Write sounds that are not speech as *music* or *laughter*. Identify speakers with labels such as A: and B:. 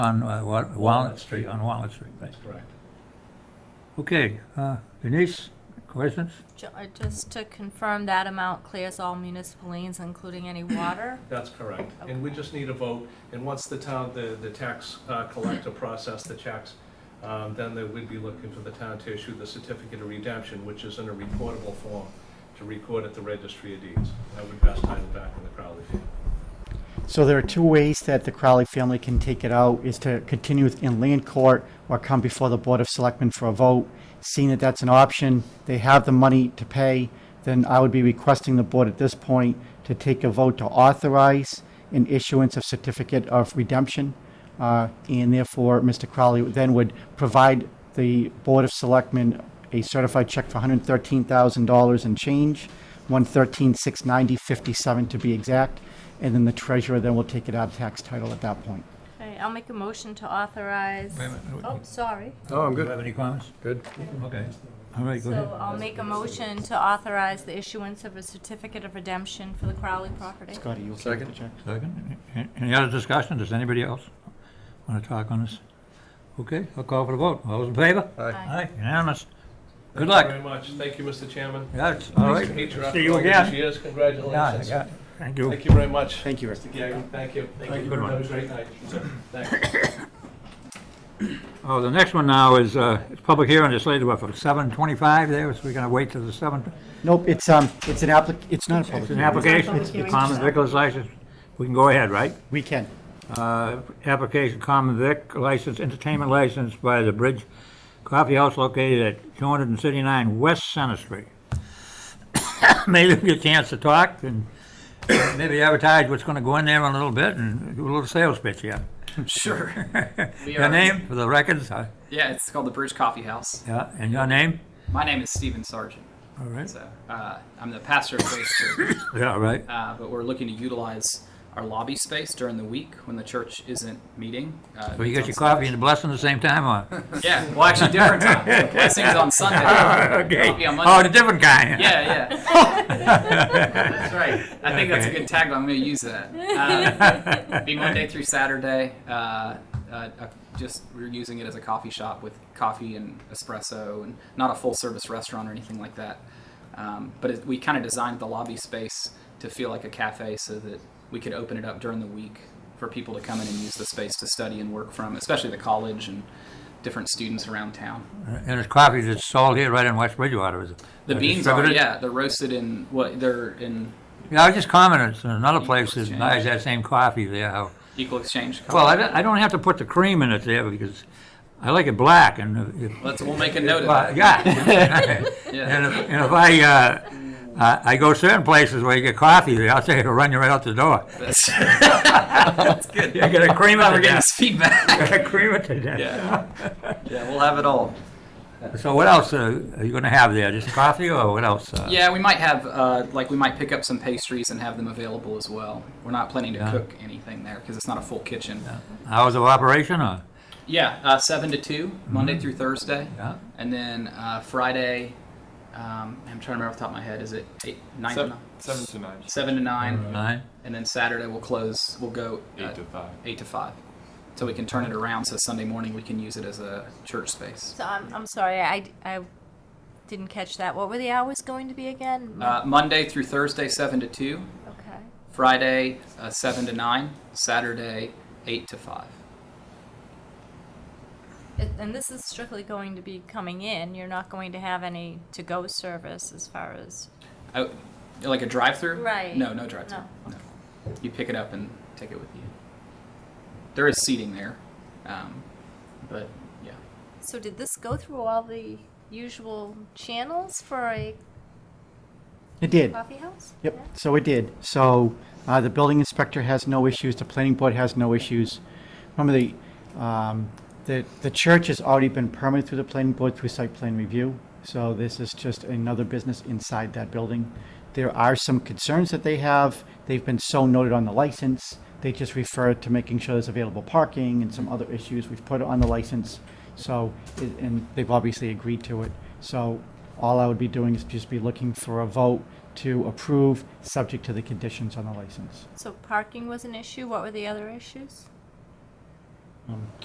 A: On uh, Wa- Walnut Street, on Walnut Street, right.
B: Correct.
A: Okay, uh, Denise, questions?
C: Ju- uh, Just to confirm, that amount clears all municipal liens, including any water?
B: That's correct. And we just need a vote, and once the town, the, the tax uh, collector process the checks, um, then they would be looking for the town to issue the certificate of redemption, which is in a recordable form, to record at the registry of deeds. I would best title back in the Crowley. Deed.
D: So there are two ways that the Crowley family can take it out, is to continue it in land court or come before the Board of Selectmen for a vote. Seeing that that's an option, they have the money to pay, then I would be requesting the board at this point to take a vote to authorize an issuance of certificate of redemption. uh, And therefore, Mr. Crowley then would provide the Board of Selectmen a certified check for $113,000 and change, 113,690.57 to be exact, and then the treasurer then will take it out of tax title at that point.
C: Okay, I'll make a motion to authorize.
A: Wait a minute.
C: Oh, sorry.
E: No, I'm
A: Do you have
E: good,
A: any comments?
E: good.
A: Okay, all right, go
C: So
A: ahead.
C: I'll make a motion to authorize the issuance of a certificate of redemption for the Crowley property.
D: Scotty, you okay with the
E: Second.
D: check?
A: Second, A- any other discussion? Does anybody else want to talk on this? Okay, I'll call for the vote. All those in favor?
E: Aye.
C: Aye.
A: Aye, unanimous. Good
B: Thank you
A: luck.
B: very much. Thank you, Mr. Chairman.
A: That's, all right.
B: Hate you
A: See
B: after
A: you
B: all
A: again.
B: these years.
A: Yeah,
B: Congratulations.
A: yeah, thank you.
B: Thank you very much.
D: Thank you, Rick.
B: Mr. Gagnon, thank you.
A: you. Good one.
B: Have a great night. Thank you.
A: Oh, the next one now is, uh, it's public hearing, it's later, what, for seven twenty-five there, so we're gonna wait till the seven,
D: Nope, it's, um, it's an applic, it's not a public
A: it's an
D: hearing.
A: application, it's a common vicular's license, we can go ahead, right?
D: We can.
A: Uh, application, common vic license, entertainment license by the Bridge Coffee House located at two hundred and thirty-nine West Center Street. *coughs* Maybe we get a chance to talk and maybe advertise what's gonna go in there in a little bit and do a little sales pitch, yeah.
F: Sure.
A: *laughs*
F: We
A: Your
F: are-
A: name for the records, uh,
F: Yeah, it's called the Bridge Coffee House.
A: yeah, and your name?
F: My name is Stephen Sargent.
A: All right,
F: So uh, I'm the pastor of Grace Church,
A: yeah, all right.
F: uh, but we're looking to utilize our lobby space during the week when the church isn't meeting. Uh,
A: Well, you got
F: it's
A: your
F: on
A: coffee and the blessing at the same time, or?
F: Sunday. Yeah, well, actually,
A: *laughs*
F: different time. The blessing's on Sunday.
A: Okay.
F: Coffee on
A: Oh, the
F: Monday.
A: different kind. *laughs*
F: yeah, yeah. That's right. I think that's a
A: Okay.
F: good tagline. I'm going to use that. Uh, be Monday through Saturday. Uh, uh, uh, just we're using it as a coffee shop with coffee and espresso, and not a full service restaurant or anything like that. Um, but it, we kind of designed the lobby space to feel like a cafe, so that we could open it up during the week for people to come in and use the space to study and work from, especially the college and different students around town.
A: And it's coffee that's sold here right in West Bridgewater, is it?
F: The
A: Or
F: beans are
A: distributed?
F: yeah, they're roasted in what they're in
A: Yeah, I was just commenting, so another place that
F: Exchange.
A: buys that same coffee there. how-
F: equal exchange.
A: Well, I don't- I don't have to put the cream in it there because I like it black and. if-
F: Let's, we'll make a note of
A: Well,
F: that.
A: Yeah.
F: *laughs*
A: *laughs* And if, and if I, uh, I I go certain places where you get coffee, there, I'll say it'll run you right out the door. *laughs*
F: That's, that's good.
A: You gotta cream it
F: Now
A: to
F: we're getting
A: death.
F: this feedback.
A: Cream it to death.
F: Yeah.
A: *laughs*
F: *laughs* Yeah, we'll have it all.
A: So what else uh, are you gonna have there? Just coffee or what else? uh?
F: Yeah, we might have, uh, like, we might pick up some pastries and have them available as well. We're not planning to
A: Yeah.
F: cook anything there because it's not a full kitchen. Yeah,
A: Hours of operation or?
F: uh, 7 to 2, Monday through Thursday.
A: Yeah.
F: And then uh, Friday, um, I'm trying to remember off the top of my head, is it 8, 9 to
G: Seven,
F: 9?
G: seven to nine.
F: 7 to 9.
A: Nine?
F: And then Saturday we'll close, we'll go
G: Eight
F: uh,
G: to five.
F: 8 to 5. So we can turn it around so Sunday morning we can use it as a church space.
C: So I'm, I'm sorry, I, I didn't catch that. What were the hours going to be again?
F: Uh, Monday through Thursday, 7 to 2.
C: Okay.
F: Friday, uh, 7 to 9. Saturday, 8 to 5.
C: It- And this is strictly going to be coming in. You're not going to have any to-go service as far as,
F: Oh, like a drive through?
C: Right.
F: No, no drive through.
C: no.
F: You pick it up and take it with you. There is seating there. Um, but yeah.
C: So did this go through all the usual channels for a
D: It did.
C: coffee house?
D: Yep, so it did. So uh, the building inspector has no issues, the planning board has no issues. Remember, the, um, the, the church has already been permitted through the planning board through site plan review. So this is just another business inside that building. There are some concerns that they have. They've been so noted on the license. They just refer to making sure there's available parking and some other issues. We've put it on the license. So, it- and they've obviously agreed to it. So all I would be doing is just be looking for a vote to approve, subject to the conditions on the license.
C: So parking was an issue. What were the other issues?
D: Um,